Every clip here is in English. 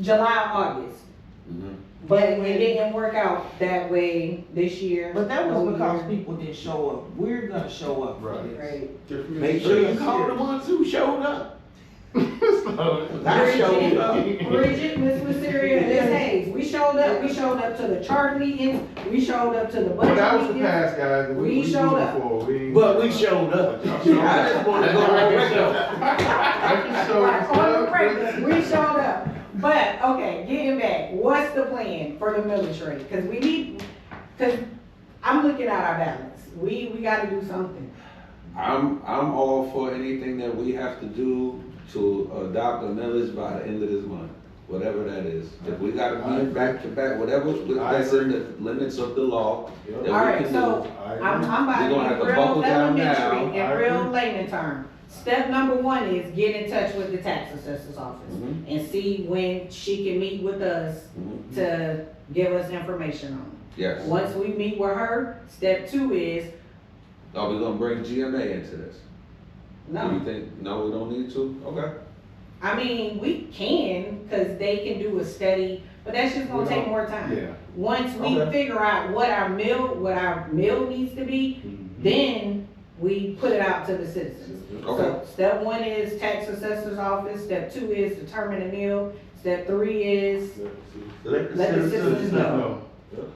July, August. Mhm. But it didn't work out that way this year. But that Oh, whole was because year. people didn't show up. We're gonna show up for Right. this. Right. Make sure you call the ones who showed up. I showed up. Bridget, Bridget, Miss Wisteria, and Miss Hayes, we showed up, we showed up to the chart meetings, we showed up to the But that budget was the meetings. past, guys. We, We we moved showed up. forward. We ain't- But we showed up. I just wanna go on record. I can show Like, on the you record, we showed up, but, okay, getting back, what's the plan for the military? Cause we need, cause I'm looking at our balance, we, we gotta do something. I'm, I'm all for anything that we have to do to adopt a millage by the end of this month, whatever that is. If we gotta be back to back, whatever, that's in the limits of the law, Yep. that we All right, can do. so I'm, I'm We're gonna have about to to be buckle real down now. elementary I and real agree. layman term. Step number one is get in touch with the tax assessor's office Mhm. and see when she can meet with us Mhm. to give us information on. it. Yes. Once we meet with her, step two is, Are we gonna bring GMA into this? Do you no, think, no, we don't need to? Okay. I mean, we can, cause they can do a study, but that's just gonna We take don't- more time. Yeah. Once we Okay. figure out what our mill, what our mill needs to be, then we put it out to the citizens. Okay. So step one is tax assessor's office, step two is determine a mill, step three is, Let the citizens know.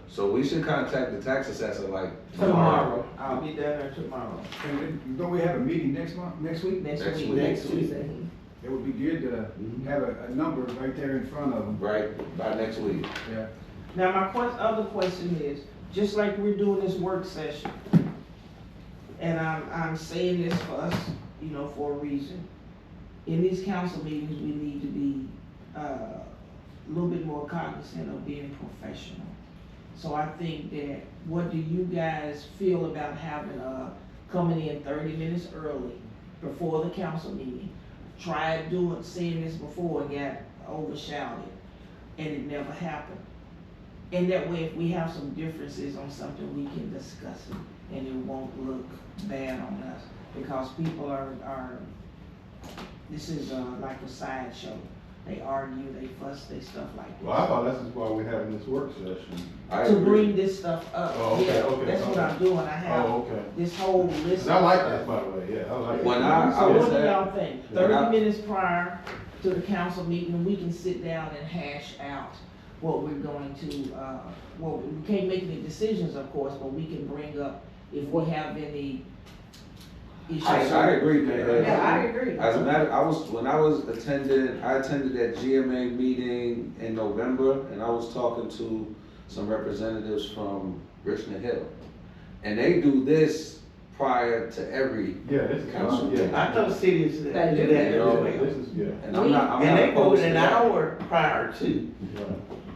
So we should contact the tax assessor like tomorrow. Tomorrow, I'll be down there tomorrow. And then, don't we have a meeting next month, next week? Next week. next Next week. Tuesday. It would be good to have a, a number right there in front of them, Right, by next week. yeah. Now, my quest, other question is, just like we're doing this work session, and I'm, I'm saying this for us, you know, for a reason. In these council meetings, we need to be, uh, a little bit more cognizant of being professional. So I think that, what do you guys feel about having, uh, coming in thirty minutes early before the council meeting? Tried doing, seeing this before and got overshadowed, and it never happened. And that way, if we have some differences on something, we can discuss it, and it won't look bad on us, because people are, are, this is, uh, like a sideshow. They argue, they fuss, they stuff like Well, I this. thought this is why we're having this work session. I To agree. bring this stuff up, Oh, okay, yeah, okay, that's what okay. I'm doing, I have Oh, okay. this whole list. 'Cause I like of stuff. that, by the way, yeah, I like. When that. I- So was what do at- y'all think? when I- Thirty minutes prior to the council meeting, we can sit down and hash out what we're going to, uh, well, we can't make any decisions, of course, but we can bring up if we have any issues. I, I agree, man. Yeah, I agree. As a matter, I was, when I was attending, I attended that GMA meeting in November, and I was talking to some representatives from Richmond Hill. And they do this prior to every, Yeah, this is, Council. yeah. cities They do that. This is, yeah. and I'm not, I'm And not they go opposed to an that. hour prior to. right.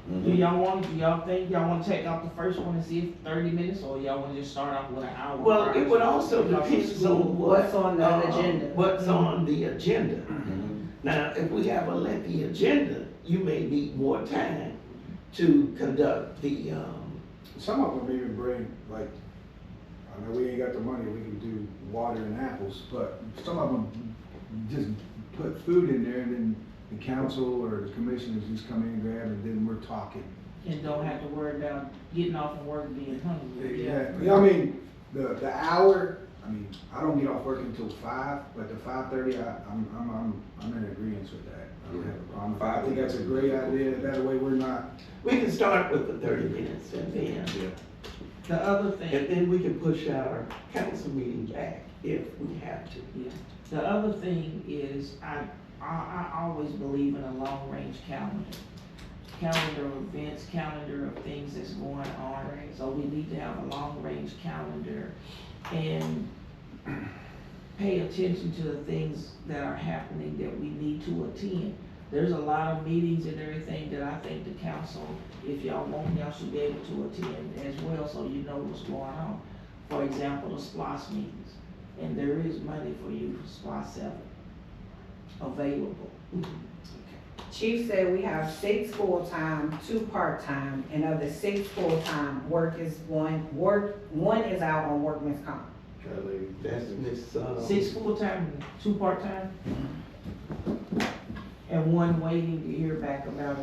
Do Mhm. y'all want, do y'all think, y'all wanna take out the first one and see if thirty minutes, or y'all wanna just start off with an hour? Well, it would prior? also depend on What's what. on the uh, agenda? What's on the agenda. Mhm. Now, if we have a lengthy agenda, you may need more time to conduct the, um, Some of them even bring, like, I know we ain't got the money, we can do water and apples, but some of them just put food in there and then the council or the commissioners just come in and grab and then we're talking. And don't have to worry about getting off of work being hungry. Yeah, yeah, I mean, the, the hour, I mean, I don't get off work until five, but the five thirty, I, I'm, I'm, I'm, I'm in agreement with that. I don't have a problem. I think that's a great idea, that way we're not, we can start with the thirty minutes and then, The other thing. and then we can push our council meeting back if we have to. The other thing is, I, I, I always believe in a long-range calendar. Calendar of events, calendar of things that's going on, so we need to have a long-range calendar and pay attention to the things that are happening that we need to attend. There's a lot of meetings and everything that I think the council, if y'all want, y'all should be able to attend as well, so you know what's going on. For example, the SPOS meetings and there is money for you for SPOT seven available. Chief said we have six full-time, two part-time, and of the six full-time, work is one, work, one is out on workman's comp. Try to leave. That's Miss, uh. Six full-time, and two part-time, and one waiting to hear back about